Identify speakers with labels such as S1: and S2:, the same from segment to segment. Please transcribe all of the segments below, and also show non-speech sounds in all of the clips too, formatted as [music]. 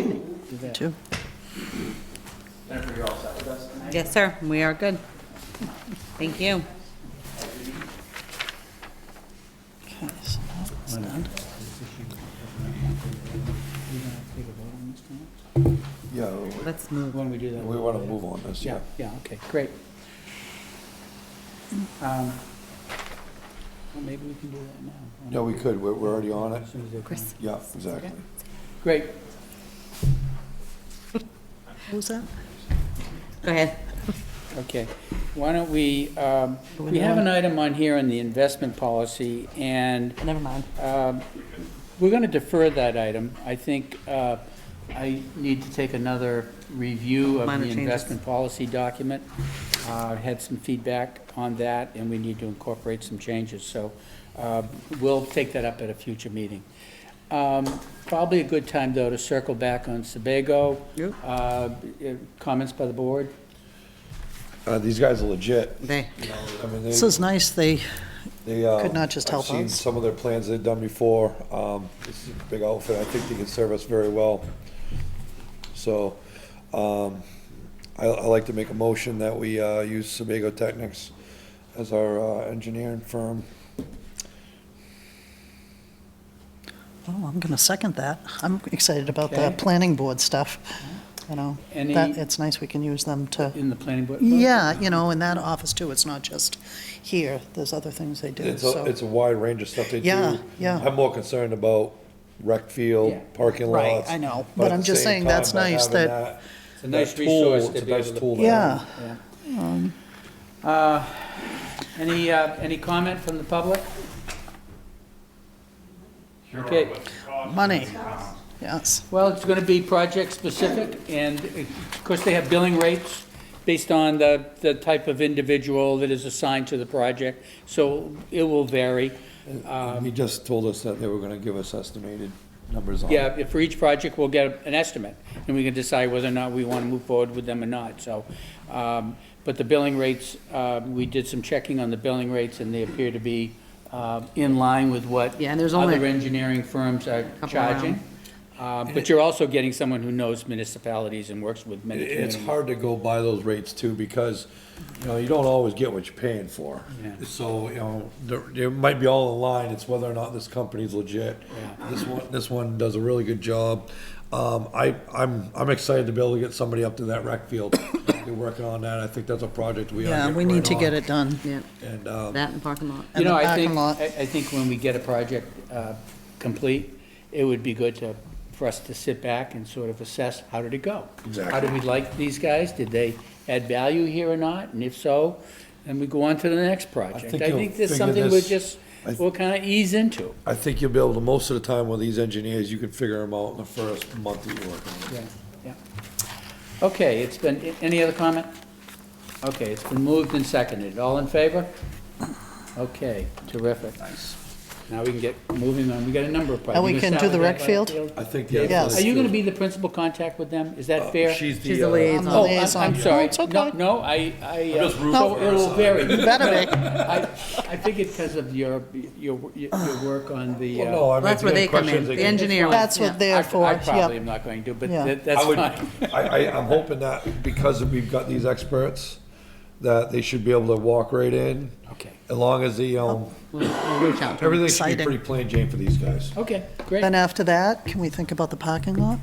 S1: Evening.
S2: Two.
S1: Jennifer, you're all set with us tonight?
S3: Yes, sir, we are good. Thank you.
S2: Okay, so that's done.
S4: Yeah,
S3: Let's move.
S1: When we do that.
S4: we want to move on this, yeah.
S1: Yeah, yeah, okay, great. Um, Well, maybe we can do that now.
S4: Yeah, we could, we're, we're already on it.
S1: As soon as they come.
S3: Chris.
S4: Yeah, exactly.
S1: Great,
S2: What was that?
S3: Go ahead.
S1: okay. Why don't we, um, we have an item on here on the investment policy, and
S3: Never mind.
S1: Um, We're going to defer that item. I think uh, I need to take another review of
S3: Minor
S1: the
S3: changes.
S1: investment policy document. Uh, Had some feedback on that, and we need to incorporate some changes, so uh, we'll take that up at a future meeting. Um, Probably a good time, though, to circle back on Sebago.
S3: Yep.
S1: Uh, Comments by the board?
S4: Uh, these guys are legit.
S3: They,
S4: I mean,
S2: This
S4: they,
S2: is nice, they,
S4: they, uh.
S2: could not just help
S4: I've seen
S2: us.
S4: some of their plans they've done before. Um, this is a big outfit. I think they can serve us very well. So, um, I, I like to make a motion that we, uh, use Sebago Technics as our, uh, engineering firm.
S2: oh, I'm going to second that. I'm excited about the
S1: Okay.
S2: planning board stuff, you know.
S1: Any-
S2: That, it's nice we can use them to,
S1: In the planning board?
S2: yeah, you know, in that office too, it's not just here, there's other things they do,
S4: It's a,
S2: so.
S4: it's a wide range of stuff they do.
S2: Yeah, yeah.
S4: I'm more concerned about rec
S1: Yeah.
S4: field, parking
S2: Right,
S4: lots.
S2: I know,
S4: at
S2: but I'm
S4: the
S2: just
S4: same
S2: saying that's
S4: time, by
S2: nice
S4: having
S2: that-
S1: It's a nice
S4: that tool,
S1: resource
S4: it's
S1: to
S4: a
S1: be able
S4: nice
S1: to-
S4: tool to have.
S2: Yeah,
S1: Uh, Any, uh, any comment from the public? Okay,
S2: money, yes.
S1: well, it's going to be project-specific, and uh, of course, they have billing rates based on the, the type of individual that is assigned to the project, so it will vary. Uh,
S4: Um, He just told us that they were gonna give us estimated numbers on it.
S1: Yeah, if for each project, we'll get an estimate, and we can decide whether or not we want to move forward with them or not, so. um, But the billing rates, uh, we did some checking on the billing rates, and they appear to be uh, in line with what
S3: Yeah, and there's only-
S1: other engineering firms are
S3: Couple
S1: charging. Uh, But you're also getting someone who knows municipalities and works with many
S4: It's
S1: communities.
S4: hard to go by those rates too, because, you know, you don't always get what you're paying for. So, you know, there, there might be all in line, it's whether or not this company's legit. This one, this one does a really good job. Um, I, I'm, I'm excited to be able to get somebody up to that rec field. They're working on that, I think that's a project we ought to
S2: Yeah, we
S4: right
S2: need to
S4: on.
S2: get it done.
S3: yeah,
S4: And, um,
S3: that and parking lot.
S1: You
S2: and the
S1: know, I
S2: parking
S1: think,
S2: lot.
S1: I I think when we get a project uh, complete, it would be good to, for us to sit back and sort of assess, how did it go? How
S4: Exactly.
S1: did we like these guys? Did they add value here or not? And if so, then we go on to the next project.
S4: think
S1: I
S4: you'll
S1: think this is
S4: figure
S1: something we'll
S4: this-
S1: just,
S4: I th-
S1: we'll kind of ease into.
S4: I think you'll be able to, most of the time with these engineers, you can figure them out in the first month that you work on it.
S1: Yeah, yeah. Okay, it's been, any other comment? Okay, it's been moved and seconded. All in favor? Okay, terrific. Nice. Now we can get moving on. We got a number of projects.
S2: And we
S1: You
S2: can
S1: gonna
S2: do
S1: start
S2: the
S1: with
S2: rec
S1: that
S2: field?
S4: I think the.
S2: Yes.
S1: Are you gonna be the principal contact with them? Is that fair?
S4: She's
S3: She's
S4: the,
S3: the
S4: uh,
S3: liaison.
S1: Oh, I'm-
S2: Liaison.
S1: I'm sorry.
S2: No, it's okay.
S1: No, no, I, I. uh,
S4: I'm just rooting
S1: so
S4: for her,
S1: It'll
S4: so.
S1: vary.
S2: Better be.
S1: [laughs] I, I figured because of your, your, your work on the.
S4: well,
S1: uh,
S4: Oh, no, I mean,
S3: That's
S4: if
S3: where
S4: you
S3: they
S4: have
S3: come in,
S4: questions, they
S3: the
S4: can-
S3: engineer.
S2: That's what
S1: I-
S2: they're for,
S1: I probably
S2: yeah.
S1: am not going to, but
S2: Yeah.
S1: that-
S4: I
S1: that's
S4: would,
S1: fine. [laughs]
S4: I, I, I'm hoping that because we've got these experts, that they should be able to walk right in.
S1: Okay.
S4: As long as the, um,
S3: We'll reach out to them.
S4: everything should be
S2: Exciting.
S4: pretty plain Jane for these guys.
S1: Okay, great.
S2: Then after that, can we think about the parking lot?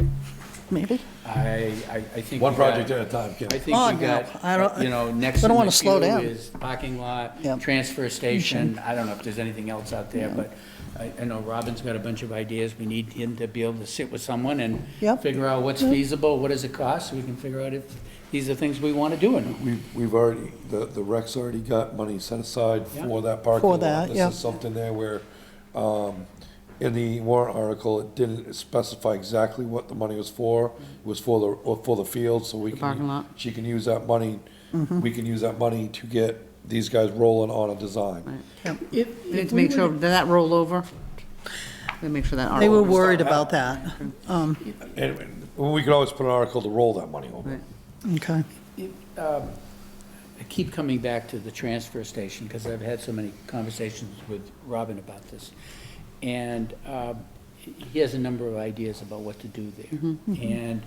S2: Maybe?
S1: I, I, I think.
S4: One
S1: we got-
S4: project at a time, Kim.
S1: I think we
S2: Oh, no, I
S1: got,
S2: don't-
S1: you know, next
S2: I
S1: in
S2: don't
S1: the
S2: wanna slow
S1: queue
S2: down.
S1: is parking lot,
S2: Yep.
S1: transfer station. I don't know if there's anything else out there, but I, I know Robin's got a bunch of ideas. We need him to be able to sit with someone and
S2: Yep.
S1: figure out what's feasible, what does it cost, so we can figure out if these are things we want to do or not.
S4: We've, we've already, the, the rec's already got money set aside for that parking
S2: For
S4: lot.
S2: that, yeah.
S4: This is something there where, um, in the warrant article, it didn't specify exactly what the money was for. It was for the, or for the field, so we can.
S3: parking lot.
S4: She can use that money,
S2: Mm-hmm.
S4: we can use that money to get these guys rolling on a design.
S3: We need to make sure, did that roll over? We make sure that.
S2: They were
S3: article-
S2: worried about that. Um,
S4: And we could always put an article to roll that money over.
S3: Right.
S2: Okay.
S1: I keep coming back to the transfer station, because I've had so many conversations with Robin about this. And um, he has a number of ideas about what to do there. And